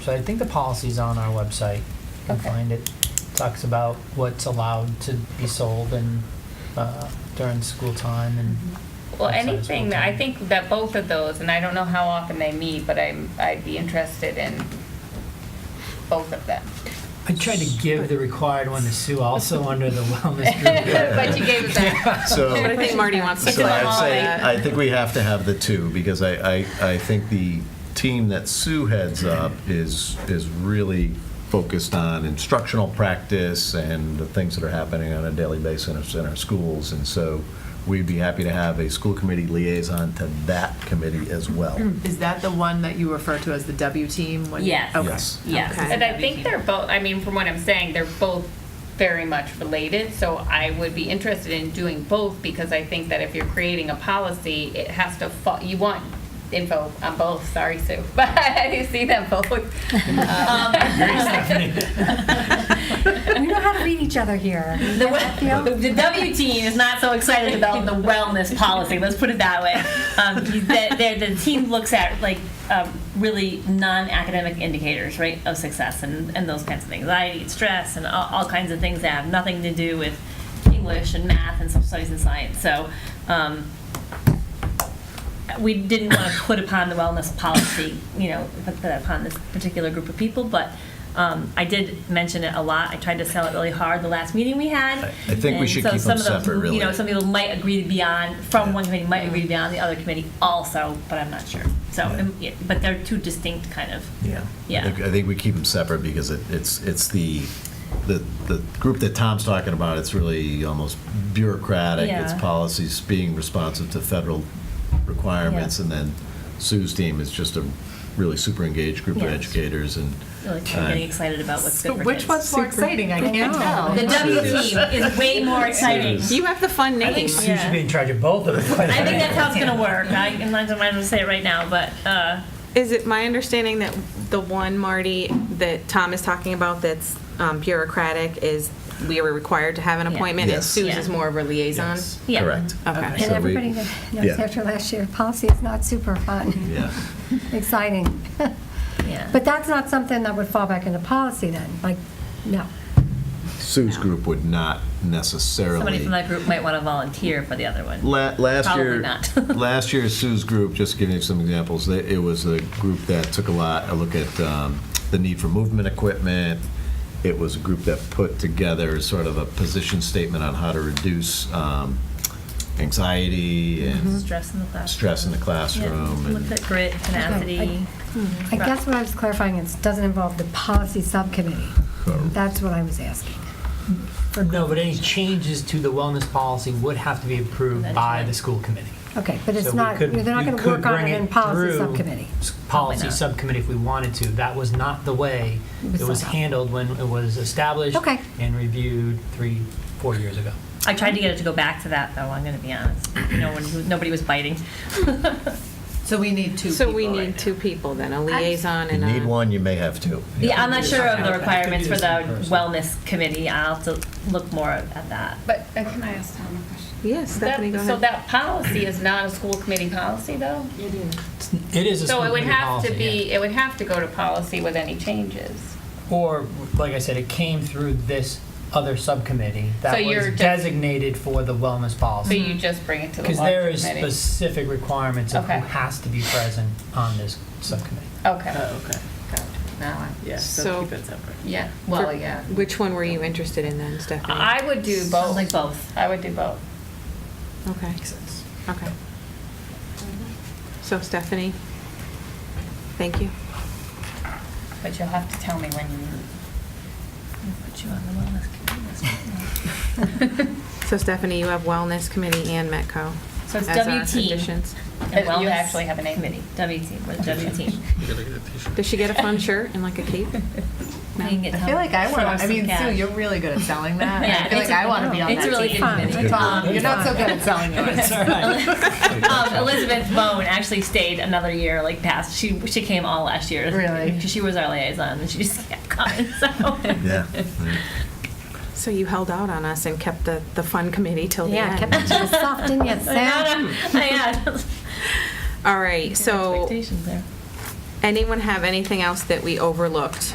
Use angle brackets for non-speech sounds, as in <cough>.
So I think the policy's on our website. You can Okay. find it. Talks about what's allowed to be sold and uh, during school time and Well, Outside of anything, school that I time. think that both of those, and I don't know how often they meet, but I'm, I'd be interested in both of them. I tried to give the required one to Sue also under the wellness group. But you gave us <laughs> that. So, But I think Marty wants to so come I'd on. say, that. I think we have to have the two, because I, I, I think the team that Sue heads up is, is really focused on instructional practice and the things that are happening on a daily basis in our schools, and so we'd be happy to have a school committee liaison to that committee as well. Is that the one that you refer to as the W team? when you- Yes. Oh, Okay. Yes. Yes, Okay. and I think they're both, I mean, from what I'm saying, they're both very much related, so I would be interested in doing both, because I think that if you're creating a policy, it has to, fo- you want info on both, sorry, Sue, <laughs> but I see them both. Um, We know how to read each other here. The, Yeah. w- the W team is not so excited about the wellness policy. Let's put it that way. Um, the, the, the team looks at like um, really non-academic indicators, right, of success and, and those kinds of things, anxiety, and stress, and all, all kinds of things that have nothing to do with English and math and social studies and science. So. Um, we didn't want to put upon the wellness policy, you know, put that upon this particular group of people, but um, I did mention it a lot. I tried to sell it really hard the last meeting we had. I- I think we And should so keep some them of those, separate, really. You know, some people might agree to be on, from Yeah. one committee, might agree to be on the other committee also, but I'm not sure. So, Yeah. um, yeah, but they're two distinct kind of. Yeah. Yeah. I think- I think we keep them separate because it- it's, it's the, the, the group that Tom's talking about, it's really almost bureaucratic. It's Yeah. policies being responsive to federal requirements. Yeah. And then Sue's team is just a really super engaged group of Yeah. educators and. Really uh, getting excited about what's So good for which kids. one's more exciting? I can't tell. The W team is way more exciting. is. You have the fun name. Sue should be in charge of both of them. I think that's how it's gonna work. I, I'm not gonna say it right now, but, uh, Is it my understanding that the one Marty that Tom is talking about that's um, bureaucratic is we are required to have an Yeah. appointment and Yes. Sue's is Yeah. more of a liaison? Yes, Yeah. Oh. Correct. Okay. And So we- everybody knows yeah. after last year, policy is not super fun, <laughs> Yeah. <laughs> exciting. yeah. But that's not something that would fall back into policy then, like, no. Sue's group would not necessarily. Somebody from that group might want to volunteer for the other one. La- last Probably year, not. <laughs> last year Sue's group, just giving you some examples, they, it was a group that took a lot a look at um, the need for movement equipment. It was a group that put together sort of a position statement on how to reduce um, anxiety and Mm-hmm. Stress in the classroom. stress in the classroom. Yeah. and- Looked at grit, tenacity. Mm-hmm. I guess what I was clarifying, is it doesn't involve the policy subcommittee. Correct. That's what I was asking. No, but any changes to the wellness policy would have to be approved by the school committee. Okay, but So it's we not, they're could- not we going to could work on bring it in policy through subcommittee. s- Policy not. subcommittee if we wanted to. That was not the way It was it was set up. handled when it was established Okay. and reviewed three, four years ago. I tried to get it to go back to that, though, I'm going to be honest. No one, nobody was biting. <laughs> So we need two So we people right need now. two people then, a liaison you and a. need one, you may have two. uh, Yeah, I'm not sure of the Okay. requirements for Could the do this in person. wellness committee. I'll have to look more at that. But uh, can I ask Tom a question? Yes, Stephanie, go That- So ahead. that policy is not a school committee policy, though? It is a school So it would committee have to policy, yeah. be, it would have to go to policy with any changes. Or, like I said, it came through this other subcommittee So that you're was just- designated for the wellness So policy. Mm-hmm. you just bring it to the Because law there is committee? specific requirements of who Okay. has to be present on this <laughs> subcommittee. uh, Okay. Oh, okay. Gotcha. Now I- Yeah, So- so keep it separate. Yeah, well, For- yeah. Which one were you interested in then, Stephanie? I would do Sounds both. like both. I would do both. Okay, okay. So Stephanie, thank you. But you'll have to tell me when you meet. Put you on the wellness committee <laughs> this week. So Stephanie, you have Wellness Committee and Metco. So it's as our W team. additions. And But You wellness actually have a name. Committee, W team, with W team. Does she get a fun shirt and like a cape? We can get I feel Tom like I to want. throw us I some mean, Sue, cash. you're really good at selling that. Yeah, I feel it's like a- I want to be on it's that a really team. good committee. Tom, Um, you're not so good at <laughs> selling yours. Um, Elizabeth Bone actually stayed another year, like past. She she came all last year. Really? 'Cause she was our liaison, and she just kept coming. <laughs> So Yeah. So you held out on us and kept the, the fun committee till the Yeah, end. kept it to yourself, didn't you, I Sam? had, I had All right, so expectations there. anyone have anything else that we overlooked?